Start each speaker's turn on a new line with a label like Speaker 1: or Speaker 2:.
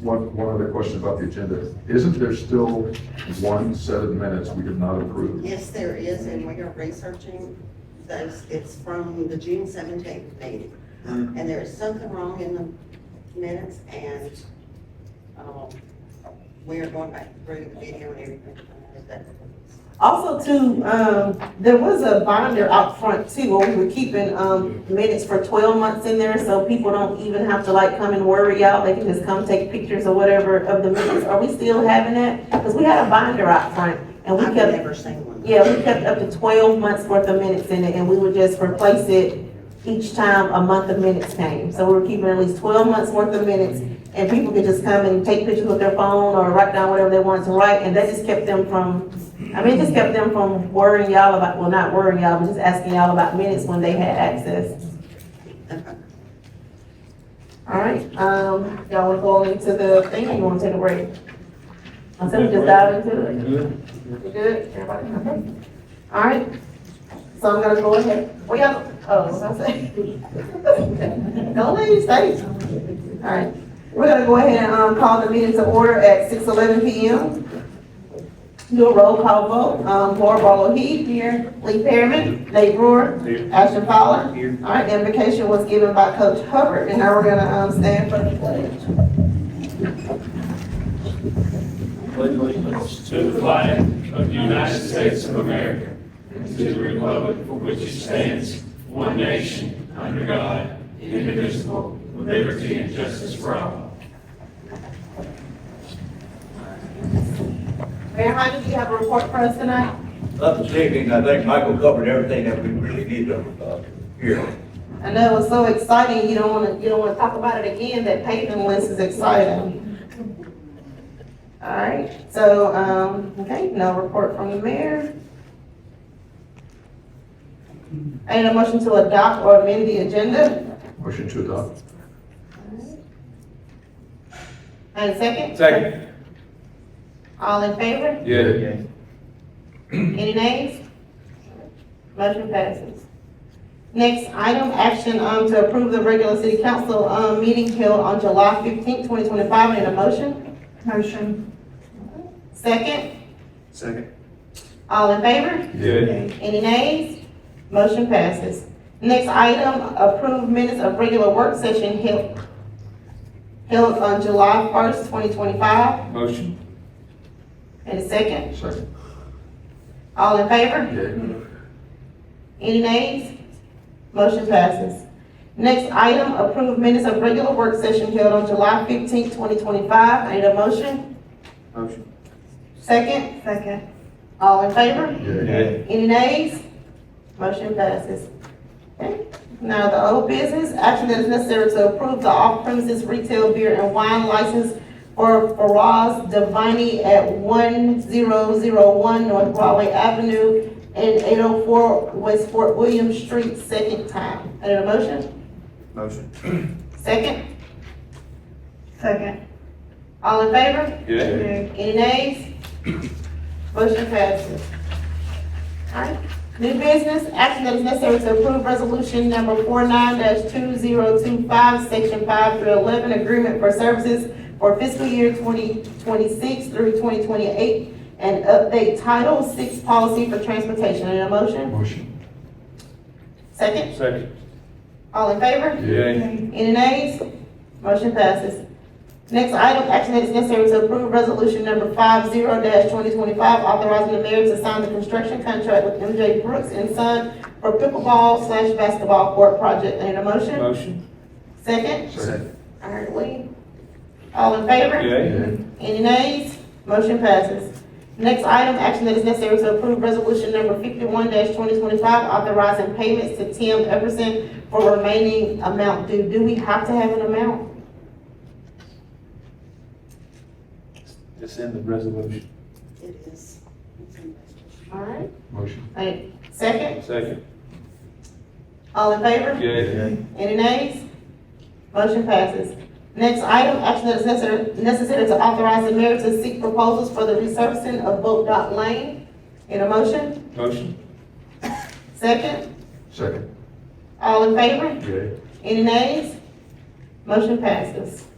Speaker 1: One, one other question about the agenda. Isn't there still one set of minutes we did not approve?
Speaker 2: Yes, there is, and we are researching those. It's from the June seventeenth meeting. And there is something wrong in the minutes and, um, we are going back through the video and everything.
Speaker 3: Also too, um, there was a binder out front too, where we were keeping, um, minutes for twelve months in there, so people don't even have to like come and worry out, they can just come take pictures or whatever of the minutes, are we still having that? Cause we had a binder out front, and we
Speaker 2: I've
Speaker 3: kept,
Speaker 2: never seen one.
Speaker 3: yeah, we kept up to twelve months worth of minutes in it, and we would just replace it each time a month of minutes came, so we were keeping at least twelve months worth of minutes, and people could just come and take pictures with their phone, or write down whatever they wanted to write, and that just kept them from I mean, it just kept them from worrying y'all about, well, not worrying y'all, but just asking y'all about minutes when they had access. All right, um, y'all wanna go into the thing, or you wanna take a break? I said we just dive into it.
Speaker 4: Good.
Speaker 3: You good? Everybody, okay? All right, so I'm gonna go ahead, well, y'all, oh, what was I saying? Don't leave, stay. All right, we're gonna go ahead and, um, call the meeting to order at six eleven P M. Do a roll call vote, um, Laura Barlow Heath. Here. Lee Perryman. Nate Brewer.
Speaker 4: Here.
Speaker 3: Ashton Fowler.
Speaker 4: Here.
Speaker 3: All right, the invocation was given by Coach Hubbard, and now we're gonna, um, stand for the pledge.
Speaker 4: Pledge allegiance
Speaker 5: To the flag of the United States of America, and to the republic for which it stands, one nation, under God, indivisible, with liberty and justice for all.
Speaker 3: Mayor Hodges, do you have a report for us tonight?
Speaker 6: Not this evening, I think Michael covered everything that we really need to, uh, hear.
Speaker 3: I know it was so exciting, you don't wanna, you don't wanna talk about it again, that paving list is exciting. Alright, so, um, okay, no report from the mayor. I need a motion to adopt or amend the agenda,
Speaker 1: Motion to adopt?
Speaker 3: and second?
Speaker 4: Second.
Speaker 3: All in favor?
Speaker 1: Yeah.
Speaker 3: Any nays? Motion passes. Next item, action, um, to approve the regular city council, um, meeting held on July fifteenth, twenty twenty-five, in a motion? Motion. Second?
Speaker 4: Second.
Speaker 3: All in favor?
Speaker 1: Yeah.
Speaker 3: Any nays? Motion passes. Next item, approve minutes of regular work session held, held on July first, twenty twenty-five.
Speaker 4: Motion.
Speaker 3: And a second,
Speaker 1: Second.
Speaker 3: all in favor?
Speaker 1: Yeah.
Speaker 3: Any nays? Motion passes. Next item, approve minutes of regular work session held on July fifteenth, twenty twenty-five. I need a motion.
Speaker 4: Motion.
Speaker 3: Second? Second. All in favor?
Speaker 1: Yeah.
Speaker 3: Any nays? Motion passes. Okay. Now, the old business, action that is necessary to approve the off-premises retail beer and wine license for Faraz Devani at one zero zero one North Broadway Avenue and eight oh four West Fort William Street, second time. Any motion?
Speaker 4: Motion.
Speaker 3: Second? Second. All in favor?
Speaker 4: Yeah.
Speaker 3: Any nays? Motion passes. Alright, new business, action that is necessary to approve resolution number four two zero two five, section five through eleven, agreement for services for fiscal year twenty twenty-six through twenty twenty-eight, and update title six policy for transportation. Any motion?
Speaker 1: Motion.
Speaker 3: Second,
Speaker 4: Second.
Speaker 3: all in favor?
Speaker 4: Yeah.
Speaker 3: Any nays? Motion passes. Next item, action that is necessary to approve resolution number five zero twenty twenty-five, authorizing the mayor to sign the construction contract with MJ Brooks and Son for pickleball slash basketball court project. Need a motion?
Speaker 4: Motion.
Speaker 3: Second?
Speaker 1: Second.
Speaker 3: All right, Lee. All in favor?
Speaker 4: Yeah.
Speaker 1: Yeah.
Speaker 3: Any nays? Motion passes. Next item, action that is necessary to approve resolution number fifty-one twenty twenty-five, authorizing payments to Tim Everson for remaining amount due. Do we have to have an amount?
Speaker 4: It's in the resolution.
Speaker 2: It is.
Speaker 3: All right.
Speaker 1: Motion.
Speaker 3: Like, second,
Speaker 4: Second.
Speaker 3: all in favor?
Speaker 4: Yeah.
Speaker 3: Any nays? Motion passes. Next item, action that is necessary, necessary to authorize the mayor to seek proposals for the resurfacing of Boat Dock Lane. In a motion?
Speaker 4: Motion.
Speaker 3: Second,
Speaker 1: Second.
Speaker 3: all in favor?
Speaker 1: Yeah.
Speaker 3: Any nays? Motion passes.